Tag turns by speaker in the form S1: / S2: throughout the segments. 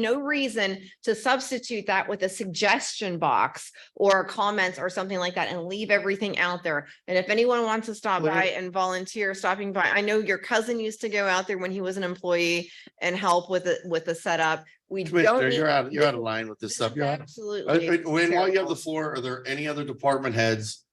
S1: no reason to substitute that with a suggestion box or comments or something like that and leave everything out there. And if anyone wants to stop
S2: Well-
S1: by and volunteer stopping by, I know your cousin used to go out there when he was an employee and help with the, with the setup. We don't
S2: Commissioner,
S1: need.
S2: you're out, you're out of line with this
S1: this
S2: stuff.
S1: is
S2: You're out. Uh,
S1: Absolutely.
S2: uh, Wayne, while you have
S1: terrible.
S2: the floor, are there any other department heads?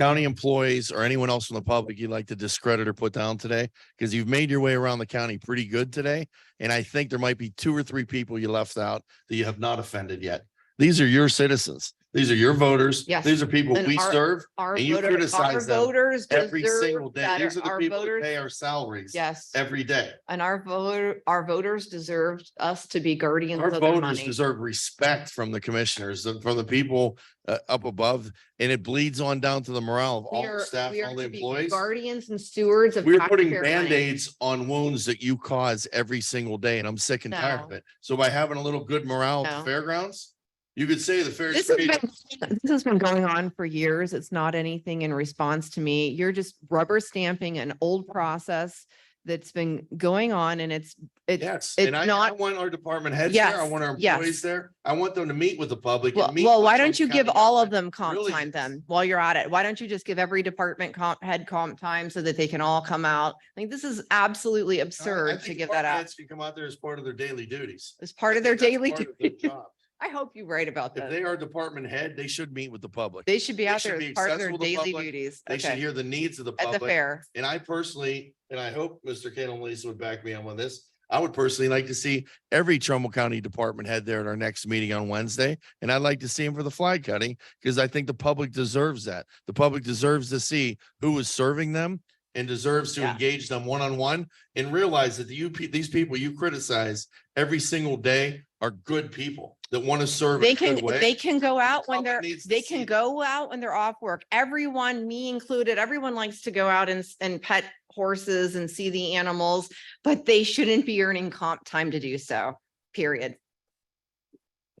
S2: County employees or anyone else from the public you'd like to discredit or put down today? Because you've made your way around the county pretty good today. And I think there might be two or three people you left out that you have not offended yet. These are your citizens. These are your voters.
S1: Yes.
S2: These are people
S1: And
S2: we
S1: our-
S2: serve
S1: Our
S2: and you
S1: voters, our
S2: criticize them
S1: voters
S2: every single
S1: deserve
S2: day.
S1: better.
S2: These are the
S1: Our
S2: people that
S1: voters,
S2: pay our salaries
S1: yes.
S2: every day.
S1: And our voter, our voters deserve us to be guardians
S2: Our
S1: of their
S2: voters
S1: money.
S2: deserve respect from the commissioners, uh, from the people uh, up above, and it bleeds on down to the morale of
S1: We
S2: all
S1: are-
S2: the staff,
S1: we are
S2: all the
S1: to be
S2: employees.
S1: Guardians and stewards of.
S2: We're putting
S1: taxpayer money.
S2: Band-Aids on wounds that you cause every single day, and I'm sick and tired of
S1: No.
S2: it. So by having a little good morale at
S1: No.
S2: the fairgrounds, you could say the fair.
S1: This has been, this has been going on for years. It's not anything in response to me. You're just rubber stamping an old process that's been going on and it's, it's,
S2: Yes,
S1: it's
S2: and I, I
S1: not-
S2: want our department heads there. I
S1: Yes,
S2: want our
S1: yes.
S2: employees there. I want them to meet with the public. and
S1: well,
S2: meet
S1: well,
S2: with
S1: why
S2: our
S1: don't you
S2: county
S1: give all of
S2: government.
S1: them comp
S2: really
S1: time
S2: is.
S1: then while you're at it? Why don't you just give every department comp, head comp time so that they can all come out? I think this is absolutely
S2: I- I
S1: absurd to
S2: think
S1: give that
S2: department
S1: out
S2: heads Can come out there as part of their daily duties.
S1: as part of their
S2: That's
S1: daily.
S2: part of their
S1: duty.
S2: job.
S1: I hope you're right about
S2: If
S1: that.
S2: they are department head, they should meet with the public.
S1: They should be
S2: they
S1: out
S2: should
S1: there
S2: be
S1: as part of their
S2: accessible to
S1: daily
S2: public.
S1: duties.
S2: They should
S1: Okay,
S2: hear the needs of the
S1: at the
S2: public.
S1: fair.
S2: And I personally, and I hope Mr. Cantalasa would back me up on this. I would personally like to see every Trumbull County Department head there at our next meeting on Wednesday. And I'd like to see him for the flag cutting because I think the public deserves that. The public deserves to see who is serving them and deserves to
S1: Yeah.
S2: engage them one-on-one and realize that the UP, these people you criticize every single day are good people that want to serve. in
S1: They
S2: a
S1: can,
S2: good way.
S1: they can go out when
S2: public
S1: they're,
S2: needs to
S1: they
S2: see
S1: can
S2: it.
S1: go out when they're off work. Everyone, me included, everyone likes to go out and, s- and pet horses and see the animals, but they shouldn't be earning comp time to do so, period.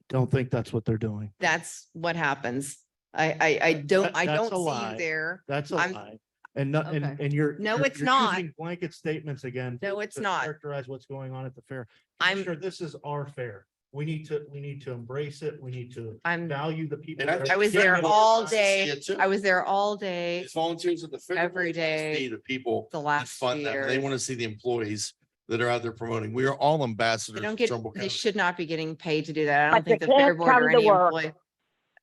S3: Don't think that's what they're doing.
S1: That's what happens. I, I, I don't,
S3: That-
S1: I
S3: that's
S1: don't
S3: a
S1: see
S3: lie.
S1: you there.
S3: That's a
S1: I'm-
S3: lie. And not, and,
S1: Okay.
S3: and you're.
S1: No,
S3: you're-
S1: it's
S3: you're
S1: not.
S3: using Blanket statements again.
S1: No,
S3: to-
S1: it's
S3: to
S1: not.
S3: Characterize what's going on at the fair.
S1: I'm,
S3: Sure, this is our fair. We need to, we need to embrace it. We need to
S1: I'm,
S3: value the people.
S2: And I
S3: that are
S2: think
S1: I was
S3: here.
S1: there
S2: fair
S1: all
S2: wants to see
S1: day.
S2: it too.
S1: I was there all day,
S2: It's volunteers at the. fair.
S1: every
S2: They wanna
S1: day
S2: see The people
S1: the
S2: that
S1: last
S2: fund them. They
S1: year.
S2: want to see the employees that are out there promoting. We are all
S1: They
S2: ambassadors
S1: don't
S2: of
S1: get,
S2: Trumbull
S1: they
S2: County.
S1: should not be getting paid to do that. I don't
S4: But
S1: think the
S4: they
S1: fair
S4: can't
S1: board or
S4: come to
S1: any
S4: work.
S1: employee.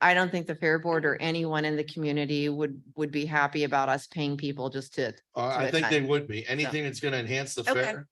S1: I don't think the fair board or anyone in the community would, would be happy about us paying people just to.
S2: Uh, I
S1: to
S2: think they
S1: attend.
S2: would be. Anything that's going to enhance the
S1: Okay.
S2: fair.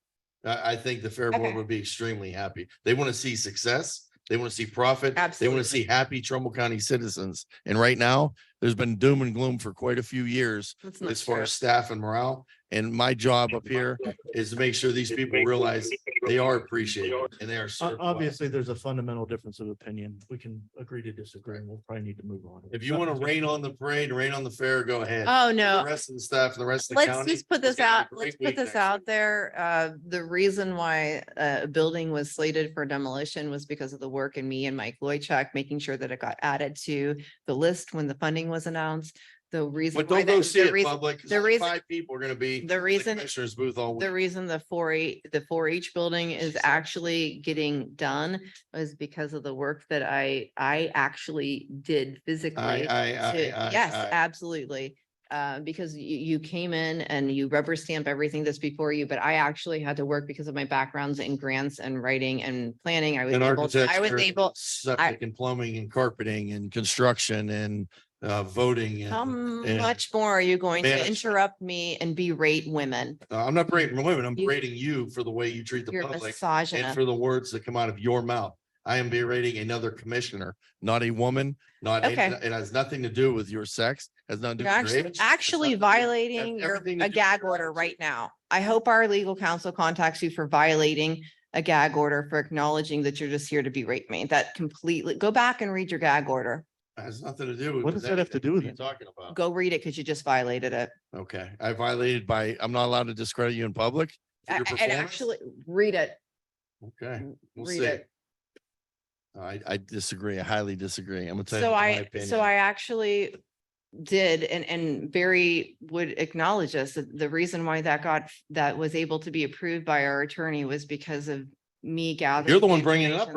S2: I, I think the fair board
S1: Okay.
S2: would be extremely happy. They want to see success. They want to see profit. They want
S1: Absolutely.
S2: to see happy Trumbull County citizens. And right now, there's been doom and gloom for quite a few years
S1: That's not
S2: as far
S1: fair.
S2: as staff and morale. And my job up here is to make sure these people realize they are appreciated and they are.
S3: O-
S2: served well.
S3: Obviously, there's a fundamental difference of opinion. We can agree to disagree. and We'll probably need to move on.
S2: If you want to rain on the parade, rain on the fair, go ahead.
S1: Oh,
S2: The
S1: no.
S2: rest of the staff and the rest of the
S1: Let's
S2: county.
S1: just put
S2: it's
S1: this
S2: gonna be a
S1: out,
S2: great
S1: let's
S2: week
S1: put this
S2: next week.
S1: out there. Uh, the reason why uh, a building was slated for demolition was because of the work and me and Mike Loychuk making sure that it got added to the list when the funding was announced. The reason.
S2: But
S1: why
S2: don't go
S1: that-
S2: see
S1: the
S2: it
S1: reason-
S2: public. 'cause
S1: the
S2: only
S1: reason-
S2: Five people are gonna be. in
S1: The reason
S2: Commissioner's booth all
S1: The
S2: week.
S1: reason the four H, the four H building is actually getting done was because of the work that I, I actually did
S2: I,
S1: physically.
S2: I, I,
S1: to-
S2: I.
S1: Yes,
S2: I-
S1: absolutely. Uh, because you, you came in and you rubber stamp everything that's before you, but I actually had to work because of my backgrounds in grants and writing and planning. I was
S2: And
S1: able, to- I was
S2: architecture,
S1: able,
S2: Septic and plumbing and carpeting and construction and, uh, voting. and-
S1: how
S2: and-
S1: much more are you going to
S2: Management.
S1: interrupt me and berate women?
S2: Uh, I'm not berating women. I'm
S1: You-
S2: berating you for the way you treat the
S1: You're
S2: public. and
S1: misogynist.
S2: for the words that come out of your mouth. I am berating another commissioner, not a woman, not,
S1: Okay.
S2: it has nothing to do with your sex, has nothing to
S1: You're
S2: do with your
S1: actually,
S2: age. has
S1: actually
S2: nothing to do- has
S1: violating your,
S2: everything to
S1: a
S2: do with
S1: gag
S2: your
S1: order
S2: attitude.
S1: right now. I hope our legal counsel contacts you for violating a gag order for acknowledging that you're just here to berate me. That completely, go back and read your gag order.
S2: Has nothing to do.
S3: What does that have to do with
S2: you
S3: it?
S2: Talking about,
S1: Go read it because you just violated it.
S2: okay, I violated by, I'm not allowed to discredit you in public.
S1: A-
S2: for your
S1: a- And
S2: performance?
S1: actually, read it,
S2: Okay, we'll
S1: read
S2: see.
S1: it.
S2: I, I disagree. I highly disagree. I'm gonna tell you.
S1: So
S2: my
S1: I, so
S2: opinion.
S1: I actually did and, and Barry would acknowledge this, that the reason why that got, that was able to be approved by our attorney was because of me gathering.
S2: You're the one bringing it up,
S1: information.